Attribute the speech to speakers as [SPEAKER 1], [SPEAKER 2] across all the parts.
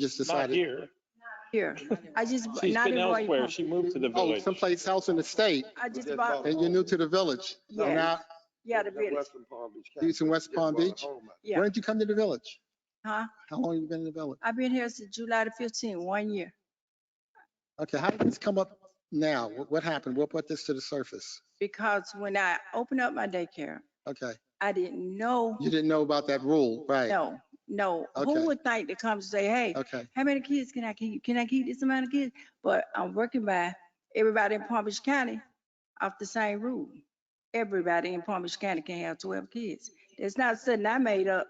[SPEAKER 1] just
[SPEAKER 2] Not
[SPEAKER 1] decided,
[SPEAKER 2] here.
[SPEAKER 3] here. I just,
[SPEAKER 2] She's
[SPEAKER 3] not
[SPEAKER 2] been
[SPEAKER 3] in Roy
[SPEAKER 2] elsewhere.
[SPEAKER 3] Pump.
[SPEAKER 2] She moved to the
[SPEAKER 1] oh,
[SPEAKER 2] village.
[SPEAKER 1] someplace else in the state,
[SPEAKER 3] I just bought,
[SPEAKER 1] and you're new to the village. So
[SPEAKER 3] Yeah.
[SPEAKER 1] now,
[SPEAKER 3] yeah, the village,
[SPEAKER 4] Western Palm Beach.
[SPEAKER 1] You from West Palm Beach?
[SPEAKER 3] yeah.
[SPEAKER 1] When did you come to the village?
[SPEAKER 3] Huh?
[SPEAKER 1] How long have you been in the village?
[SPEAKER 3] I've been here since July the fifteenth, one year.
[SPEAKER 1] Okay, how did this come up now? What what happened? What brought this to the surface?
[SPEAKER 3] Because when I opened up my daycare,
[SPEAKER 1] Okay,
[SPEAKER 3] I didn't know,
[SPEAKER 1] you didn't know about that rule, right?
[SPEAKER 3] no, no.
[SPEAKER 1] Okay.
[SPEAKER 3] Who would think to come say, hey,
[SPEAKER 1] Okay,
[SPEAKER 3] how many kids can I keep? Can I keep this amount of kids? But I'm working by everybody in Palm Beach County off the same rule. Everybody in Palm Beach County can have twelve kids. It's not something I made up,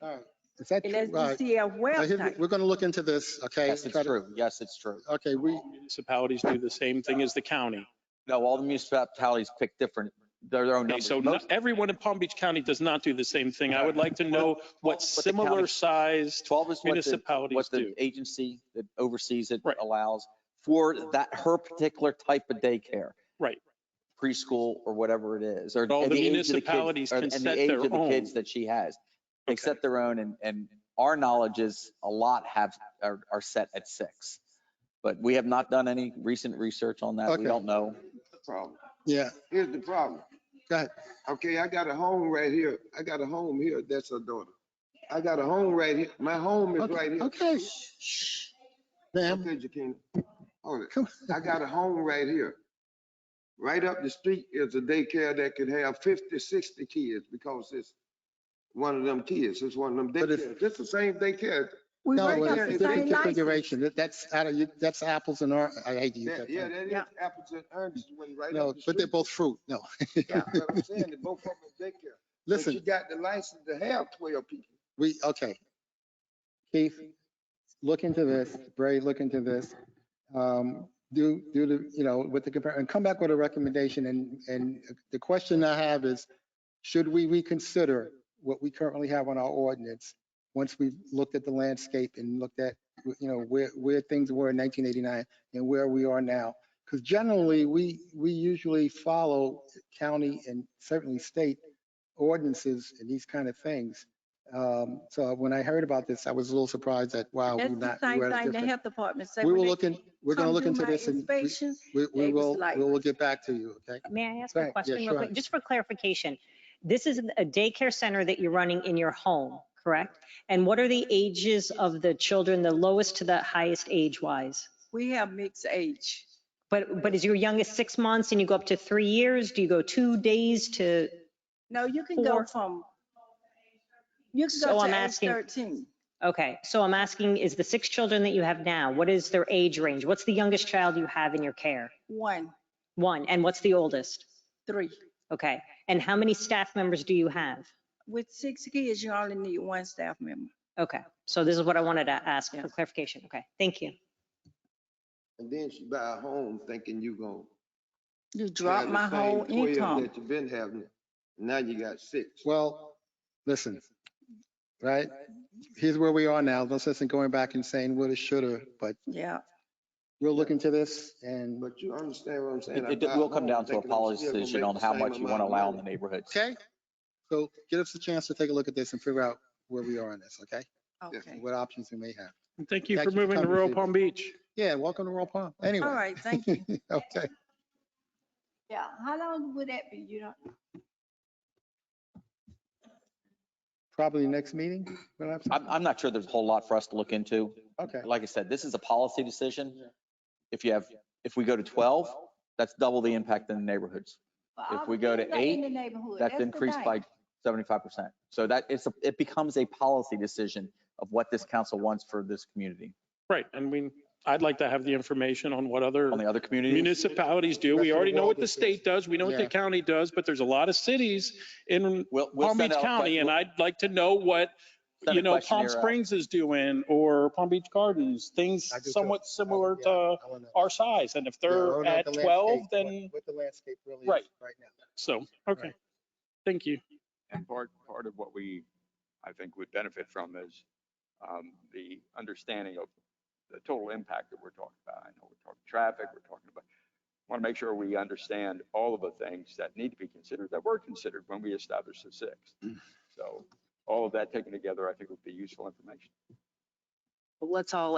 [SPEAKER 1] all right. Is that true?
[SPEAKER 3] and that's
[SPEAKER 1] All right.
[SPEAKER 3] DCF
[SPEAKER 1] Now, here-
[SPEAKER 3] website.
[SPEAKER 1] We're going to look into this, okay?
[SPEAKER 5] Yes, it's
[SPEAKER 1] Try to-
[SPEAKER 5] true. Yes, it's true.
[SPEAKER 1] Okay, we,
[SPEAKER 2] Municipalities do the same thing as the county.
[SPEAKER 5] No, all the municipalities pick different, their their own
[SPEAKER 2] Okay,
[SPEAKER 5] numbers.
[SPEAKER 2] so not-
[SPEAKER 5] Most-
[SPEAKER 2] everyone in Palm Beach County does not do the same thing. I would like to know what
[SPEAKER 5] What the county-
[SPEAKER 2] similar sized
[SPEAKER 5] 12 is what the,
[SPEAKER 2] municipalities
[SPEAKER 5] what
[SPEAKER 2] do.
[SPEAKER 5] the agency that oversees it
[SPEAKER 2] Right.
[SPEAKER 5] allows for that, her particular type of daycare.
[SPEAKER 2] Right.
[SPEAKER 5] Preschool or whatever it is, or.
[SPEAKER 2] All
[SPEAKER 5] and
[SPEAKER 2] the
[SPEAKER 5] age of kids-
[SPEAKER 2] municipalities
[SPEAKER 5] or-
[SPEAKER 2] can
[SPEAKER 5] and the
[SPEAKER 2] set
[SPEAKER 5] age
[SPEAKER 2] their
[SPEAKER 5] of the Kids
[SPEAKER 2] own.
[SPEAKER 5] that she has, they
[SPEAKER 2] Okay.
[SPEAKER 5] set their own and, and our knowledge is a lot have, are, are set at six. But we have not done any recent research on that.
[SPEAKER 1] Okay.
[SPEAKER 5] We don't know.
[SPEAKER 4] Problem.
[SPEAKER 1] yeah,
[SPEAKER 4] Here's the problem.
[SPEAKER 1] go ahead.
[SPEAKER 4] Okay, I got a home right here. I got a home here. That's her daughter. I got a home right here. My home is right
[SPEAKER 1] Okay,
[SPEAKER 4] here.
[SPEAKER 1] okay. Ma'am,
[SPEAKER 4] Okay, Jaquina. Hold it.
[SPEAKER 1] come,
[SPEAKER 4] I got a home right here. Right up the street is a daycare that can have 50, 60 kids because it's one of them kids. It's one of them
[SPEAKER 1] But if-
[SPEAKER 4] daycares. It's the same daycare.
[SPEAKER 3] We
[SPEAKER 1] no,
[SPEAKER 3] work
[SPEAKER 4] it's-
[SPEAKER 1] it's
[SPEAKER 3] off the
[SPEAKER 1] a
[SPEAKER 3] same
[SPEAKER 4] it's
[SPEAKER 1] different
[SPEAKER 3] license.
[SPEAKER 1] configuration. That- That's out of, you- that's apples and oranges. I hate to use
[SPEAKER 4] That-
[SPEAKER 1] that
[SPEAKER 4] Yeah,
[SPEAKER 1] term.
[SPEAKER 4] that is
[SPEAKER 3] Yeah.
[SPEAKER 4] apples and oranges one right
[SPEAKER 1] No,
[SPEAKER 4] up the
[SPEAKER 1] but they're
[SPEAKER 4] street.
[SPEAKER 1] both fruit, no.
[SPEAKER 4] Yeah, but I'm saying, they both of them is daycare. But
[SPEAKER 1] Listen,
[SPEAKER 4] She got the license to have 12 people.
[SPEAKER 1] We, okay. Keith, look into this, Bray, look into this. Um, Do, do the, you know, with the compare, and come back with a recommendation. And, and the question I have is, should we reconsider what we currently have on our ordinance? Once we've looked at the landscape and looked at, you know, where, where things were in 1989 and where we are now? Because generally, we, we usually follow county and certainly state ordinances and these kind of things. Um, So when I heard about this, I was a little surprised that, wow, we're
[SPEAKER 3] That's the
[SPEAKER 1] not,
[SPEAKER 3] same
[SPEAKER 1] we're at a
[SPEAKER 3] thing the
[SPEAKER 1] different.
[SPEAKER 3] health department say.
[SPEAKER 1] We
[SPEAKER 3] when
[SPEAKER 1] will
[SPEAKER 3] they
[SPEAKER 1] look in, we're going to
[SPEAKER 3] come
[SPEAKER 1] look
[SPEAKER 3] do
[SPEAKER 1] into
[SPEAKER 3] my
[SPEAKER 1] this and we-
[SPEAKER 3] inspection,
[SPEAKER 1] we, we
[SPEAKER 3] they was
[SPEAKER 1] will,
[SPEAKER 3] like-
[SPEAKER 1] we will get back to you, okay?
[SPEAKER 6] May I ask
[SPEAKER 1] Right,
[SPEAKER 6] a
[SPEAKER 1] yeah,
[SPEAKER 6] question real
[SPEAKER 1] sure.
[SPEAKER 6] quick? Just for clarification, this is a daycare center that you're running in your home, correct? And what are the ages of the children, the lowest to the highest age-wise?
[SPEAKER 3] We have mixed age.
[SPEAKER 6] But, but is your youngest six months and you go up to three years? Do you go two days to,
[SPEAKER 3] No, you can go
[SPEAKER 6] Four.
[SPEAKER 3] from, you can
[SPEAKER 6] So
[SPEAKER 3] go
[SPEAKER 6] I'm
[SPEAKER 3] to age
[SPEAKER 6] asking-
[SPEAKER 3] 13.
[SPEAKER 6] okay, so I'm asking, is the six children that you have now, what is their age range? What's the youngest child you have in your care?
[SPEAKER 3] One,
[SPEAKER 6] One, and what's the oldest?
[SPEAKER 3] three.
[SPEAKER 6] Okay, and how many staff members do you have?
[SPEAKER 3] With six kids, you only need one staff member.
[SPEAKER 6] Okay, so this is what I wanted to ask
[SPEAKER 3] Yeah.
[SPEAKER 6] for clarification. Okay, thank you.
[SPEAKER 4] And then she buy a home thinking you gonna.
[SPEAKER 3] You drop
[SPEAKER 4] have the
[SPEAKER 3] my
[SPEAKER 4] same
[SPEAKER 3] whole
[SPEAKER 4] 12
[SPEAKER 3] income.
[SPEAKER 4] That you been having. Now you got six.
[SPEAKER 1] Well, listen, right? Here's where we are now. No sense in going back and saying woulda, shoulda, but
[SPEAKER 3] Yeah,
[SPEAKER 1] we'll look into this and,
[SPEAKER 4] But you understand what I'm saying? I
[SPEAKER 5] It,
[SPEAKER 4] buy
[SPEAKER 5] it
[SPEAKER 4] a
[SPEAKER 5] will come
[SPEAKER 4] home
[SPEAKER 5] down to a
[SPEAKER 4] thinking I'm
[SPEAKER 5] policy
[SPEAKER 4] still gonna
[SPEAKER 5] decision
[SPEAKER 4] make
[SPEAKER 5] on
[SPEAKER 4] the
[SPEAKER 5] how
[SPEAKER 4] same
[SPEAKER 5] much you
[SPEAKER 4] amount
[SPEAKER 5] want to
[SPEAKER 4] of
[SPEAKER 5] allow in
[SPEAKER 4] money.
[SPEAKER 5] the neighborhoods.
[SPEAKER 1] okay? So give us a chance to take a look at this and figure out where we are on this, okay?
[SPEAKER 3] okay.
[SPEAKER 1] What options we may have.
[SPEAKER 2] Thank you
[SPEAKER 1] Thank you
[SPEAKER 2] for
[SPEAKER 1] for
[SPEAKER 2] moving to
[SPEAKER 1] coming,
[SPEAKER 2] rural
[SPEAKER 1] Steve.
[SPEAKER 2] Palm Beach.
[SPEAKER 1] Yeah, welcome to Royal Palm, anyway.
[SPEAKER 3] All right, thank you.
[SPEAKER 1] Okay.
[SPEAKER 3] Yeah, how long would that be? You don't,
[SPEAKER 1] Probably next meeting, we'll have, some-
[SPEAKER 5] I'm, I'm not sure there's a whole lot for us to look into.
[SPEAKER 1] okay.
[SPEAKER 5] Like I said, this is a policy decision. If you have, if we go to 12, that's double the impact in the neighborhoods. If we go to eight, That's increased by 75%. So that it's, a- it becomes a policy decision of what this council wants for this community.
[SPEAKER 2] Right. And we, I'd like to have the information on what other
[SPEAKER 5] On the other communities,
[SPEAKER 2] municipalities do.
[SPEAKER 1] Rest of
[SPEAKER 2] We
[SPEAKER 1] the
[SPEAKER 2] already know
[SPEAKER 1] world
[SPEAKER 2] what the
[SPEAKER 1] is-
[SPEAKER 2] state does. We know what the
[SPEAKER 1] Yeah.
[SPEAKER 2] county does, but there's a lot of cities in
[SPEAKER 5] we'll, we'll
[SPEAKER 2] Palm
[SPEAKER 5] send
[SPEAKER 2] Beach
[SPEAKER 5] out.
[SPEAKER 2] County and
[SPEAKER 5] we'll
[SPEAKER 2] I'd like to know what,
[SPEAKER 5] send
[SPEAKER 2] you
[SPEAKER 5] a
[SPEAKER 2] know, Palm
[SPEAKER 5] questionnaire out.
[SPEAKER 2] Springs is doing or Palm Beach Gardens, things
[SPEAKER 1] uh, I do too.
[SPEAKER 2] somewhat similar to
[SPEAKER 1] I wanna-
[SPEAKER 2] our size. And if
[SPEAKER 1] Yeah, I wanna
[SPEAKER 2] they're
[SPEAKER 1] know
[SPEAKER 2] at
[SPEAKER 1] what the
[SPEAKER 2] 12,
[SPEAKER 1] landscape-
[SPEAKER 2] then,
[SPEAKER 1] What what the landscape really is
[SPEAKER 2] Right.
[SPEAKER 1] right now.
[SPEAKER 2] so, okay.
[SPEAKER 1] Right.
[SPEAKER 2] Thank you.
[SPEAKER 7] And part, part of what we, I think, would benefit from is um, the understanding of the total impact that we're talking about. I know we're talking traffic, we're talking about, want to make sure we understand all of the things that need to be considered, that were considered when we established the six. So all of that taken together, I think would be useful information.
[SPEAKER 6] let's all